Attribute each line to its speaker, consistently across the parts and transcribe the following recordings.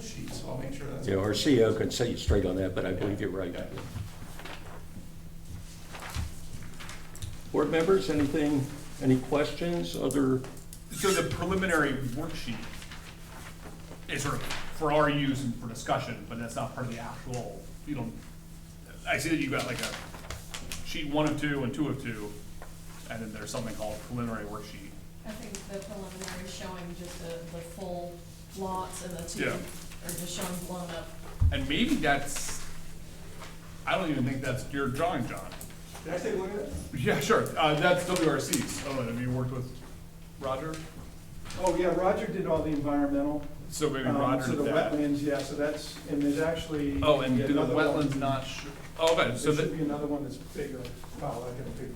Speaker 1: sheet, so I'll make sure that's.
Speaker 2: Yeah, our CEO can set you straight on that, but I believe you're right.
Speaker 1: Yeah.
Speaker 2: Board members, anything, any questions, other,
Speaker 3: So the preliminary worksheet is sort of for our use and for discussion, but that's not part of the actual, you don't, I see that you've got like a sheet one of two and two of two, and then there's something called preliminary worksheet.
Speaker 4: I think the preliminary is showing just the, the full lots and the two
Speaker 3: Yeah.
Speaker 4: are just showing blown up.
Speaker 3: And maybe that's, I don't even think that's your drawing, John.
Speaker 1: Can I take a look at it?
Speaker 3: Yeah, sure, uh, that's WRC's, oh, have you worked with Roger?
Speaker 5: Oh, yeah, Roger did all the environmental.
Speaker 3: So maybe
Speaker 5: um,
Speaker 3: Roger
Speaker 5: So
Speaker 3: did
Speaker 5: the
Speaker 3: that.
Speaker 5: wetlands, yeah, so that's, and there's actually.
Speaker 3: Oh, and do the
Speaker 5: another one.
Speaker 3: wetlands not, sh- oh, okay, so
Speaker 5: There
Speaker 3: that.
Speaker 5: should be another one that's bigger. Wow, I got a big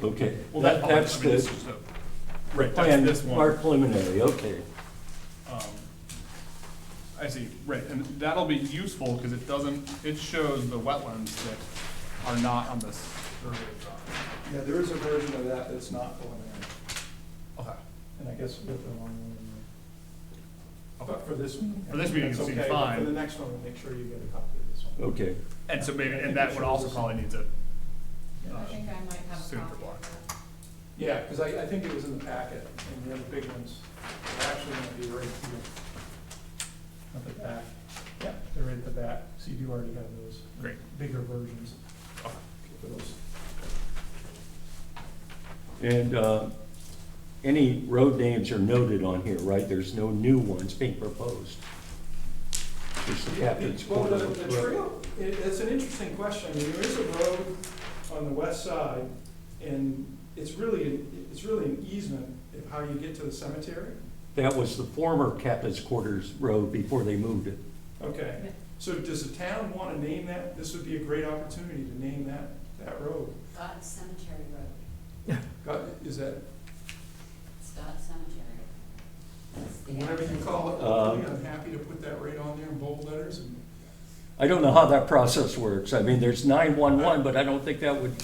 Speaker 5: one.
Speaker 2: okay.
Speaker 3: Well, that,
Speaker 2: That's
Speaker 3: that's I mean, this
Speaker 2: the
Speaker 3: is a, right, that's
Speaker 2: plan,
Speaker 3: this one.
Speaker 2: our preliminary, okay.
Speaker 3: Um, I see, right, and that'll be useful, because it doesn't, it shows the wetlands that are not on this survey drawing.
Speaker 5: Yeah, there is a version of that that's not preliminary,
Speaker 3: Okay,
Speaker 5: and I guess we'll put the one. in there.
Speaker 3: okay.
Speaker 5: But for this one.
Speaker 3: For this meeting, it
Speaker 5: that's
Speaker 3: seems
Speaker 5: okay, but
Speaker 3: fine.
Speaker 5: For the next one, we'll make sure you get a copy of this one.
Speaker 2: Okay,
Speaker 3: And so maybe,
Speaker 5: I think
Speaker 3: and
Speaker 5: it
Speaker 3: that would also
Speaker 5: shows-
Speaker 3: probably need to,
Speaker 4: I think I might have a
Speaker 3: Super
Speaker 4: copy
Speaker 3: Uh, block.
Speaker 4: of that.
Speaker 5: Yeah, because I, I think it was in the packet, and the other big ones are actually gonna be right here. At the back. Yeah, they're right at the back, so you do already have those.
Speaker 3: Great.
Speaker 5: Bigger versions
Speaker 3: okay.
Speaker 5: for those.
Speaker 2: and, uh, any road names are noted on here, right? There's no new ones being proposed. Just the Captain's
Speaker 5: Well,
Speaker 2: Corner.
Speaker 5: the, the trail, it, it's an interesting question, I mean, there is a road on the west side, and it's really, it's really an easement of how you get to the cemetery,
Speaker 2: That was the former Captain's Quarters Road before they moved it.
Speaker 5: okay? So does the town wanna name that, this would be a great opportunity to name that, that road,
Speaker 6: Scott Cemetery Road,
Speaker 5: God, is that,
Speaker 6: Scott Cemetery. That's the
Speaker 5: whatever you
Speaker 6: address.
Speaker 5: call it,
Speaker 2: Uh,
Speaker 5: really, I'm happy to put that right on there in bold letters, and
Speaker 2: I don't know how that process works. I mean, there's 911, but I don't think that would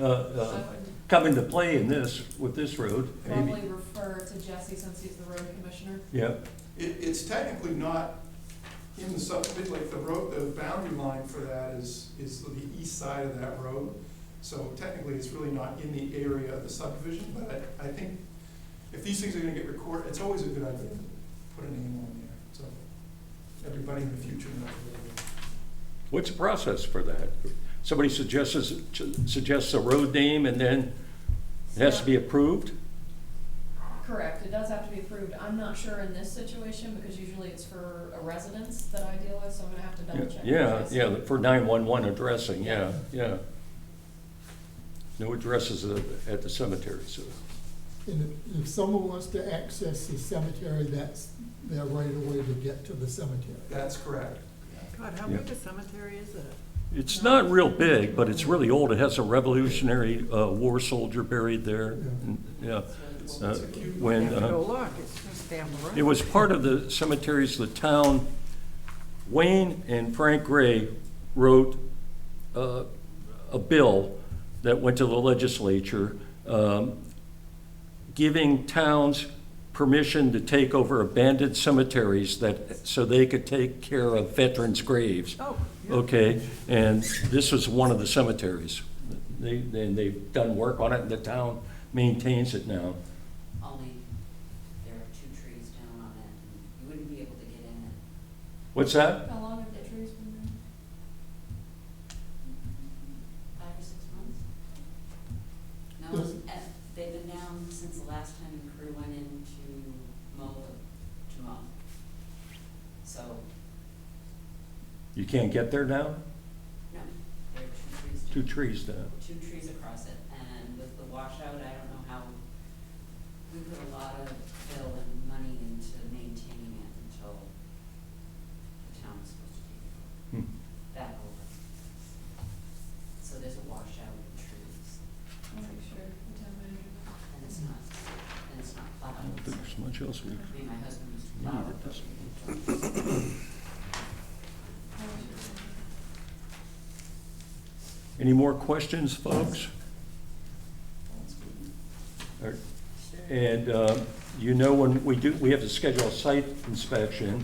Speaker 2: uh,
Speaker 4: I
Speaker 2: uh,
Speaker 4: would
Speaker 2: come into play in this, with this road, maybe.
Speaker 4: probably refer to Jesse since he's the road commissioner.
Speaker 2: Yeah,
Speaker 5: it, it's technically not in the sub, like, the road, the boundary line for that is, is the east side of that road. So technically, it's really not in the area of the subdivision, but I, I think if these things are gonna get recorded, it's always a good idea to put a name on there, so everybody in the future knows where it is.
Speaker 2: what's the process for that? Somebody suggests, suggests a road name and then it has to be approved?
Speaker 4: Correct, it does have to be approved. I'm not sure in this situation because usually it's for a residence that I deal with, so I'm gonna have to double check. with
Speaker 2: Yeah,
Speaker 4: Jesse.
Speaker 2: yeah, for 911 addressing, yeah, yeah. No addresses at- at the cemetery, so,
Speaker 7: And if, if someone wants to access the cemetery, that's their right of way to get to the cemetery.
Speaker 5: That's correct.
Speaker 8: God, how
Speaker 2: Yeah.
Speaker 8: big a cemetery is it?
Speaker 2: it's not real big, but it's really old. It has a Revolutionary uh, War soldier buried there, yeah.
Speaker 6: That's
Speaker 2: Uh,
Speaker 6: really cool.
Speaker 8: You
Speaker 2: When,
Speaker 8: have to
Speaker 2: uh,
Speaker 8: go look, it's just down the road.
Speaker 2: It was part of the cemeteries, the town, Wayne and Frank Gray wrote uh, a bill that went to the legislature um, giving towns permission to take over abandoned cemeteries that, so they could take care of veterans' graves.
Speaker 8: Oh, yeah.
Speaker 2: Okay, and this was one of the cemeteries. They, and they've done work on it, and the town maintains it now.
Speaker 6: Only there are two trees down on it, and you wouldn't be able to get in it.
Speaker 2: What's that?
Speaker 4: How long have the trees been there?
Speaker 6: Five or six months? No,
Speaker 7: Does-
Speaker 6: eh, they've been down since the last time the crew went in to mow, the- to mow. So,
Speaker 2: You can't get there now?
Speaker 6: no, there are
Speaker 2: Two
Speaker 6: two trees. down.
Speaker 2: trees now.
Speaker 6: two trees across it, and with the washout, I don't know how, we put a lot of bill and money into maintaining it until the town was supposed to be
Speaker 2: Hmm.
Speaker 6: that over. So there's a washout of trees,
Speaker 4: I'll make sure the town manager. knows.
Speaker 6: and it's not, and it's not
Speaker 2: I don't think
Speaker 6: plowed.
Speaker 2: there's much else we,
Speaker 6: I mean, my husband used to
Speaker 2: No,
Speaker 6: plow
Speaker 2: it
Speaker 6: it, but
Speaker 2: doesn't.
Speaker 6: we don't.
Speaker 4: I'll make sure.
Speaker 2: any more questions, folks? All right. And uh, you know, when we do, we have to schedule a site inspection,